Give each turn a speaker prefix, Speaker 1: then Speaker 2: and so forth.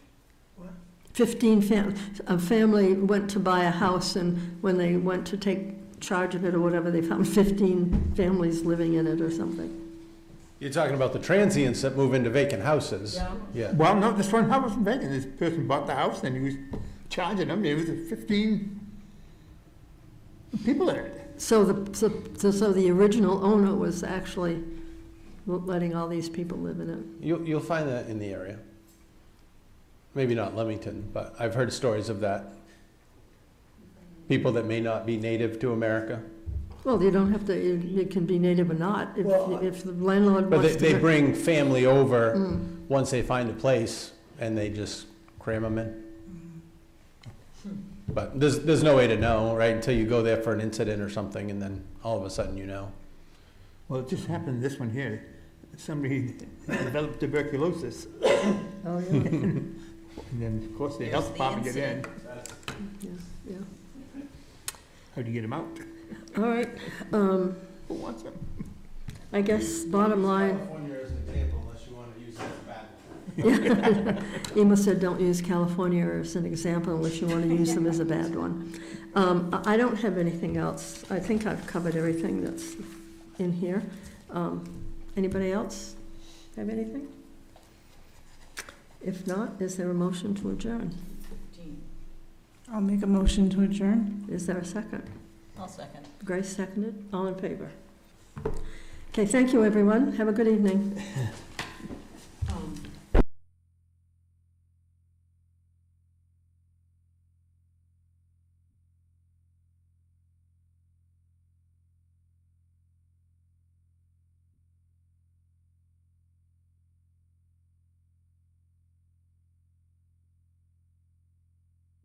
Speaker 1: 15 fam, a family went to buy a house, and when they went to take charge of it or whatever, they found 15 families living in it or something.
Speaker 2: You're talking about the transients that move into vacant houses?
Speaker 3: Yeah.
Speaker 2: Yeah.
Speaker 4: Well, no, this one house was vacant, this person bought the house and he was charging them, there was fifteen people in it.
Speaker 1: So the, so- so, so the original owner was actually letting all these people live in it.
Speaker 2: You, you'll find that in the area. Maybe not Leamington, but I've heard stories of that. People that may not be native to America,
Speaker 1: Well, you don't have to, it it can be native or not, if,
Speaker 2: Well, I-
Speaker 1: if the landlord
Speaker 2: but they,
Speaker 1: wants to.
Speaker 2: they bring family over once they find a place and they just cram them in. But there's, there's no way to know, right, until you go there for an incident or something and then all of a sudden you know.
Speaker 4: Well, it just happened, this one here, somebody developed tuberculosis.
Speaker 1: Oh, yeah,
Speaker 4: And then, of course, the
Speaker 3: There's
Speaker 4: health
Speaker 3: the
Speaker 4: department get in,
Speaker 3: incident.
Speaker 1: yeah, yeah.
Speaker 4: how do you get them out?
Speaker 1: All right, um,
Speaker 4: Who wants them?
Speaker 1: I guess bottom line,
Speaker 2: California as an example, unless you want to use it as a bad
Speaker 1: Emma said, don't use California as an example unless you want to use them as a bad one. Um, I I don't have anything else. I think I've covered everything that's in here. Um, Anybody else have anything? If not, is there a motion to adjourn?
Speaker 5: I'll make a motion to adjourn.
Speaker 1: Is there a second?
Speaker 3: I'll second.
Speaker 1: Grace seconded, all in favor. Okay, thank you, everyone. Have a good evening.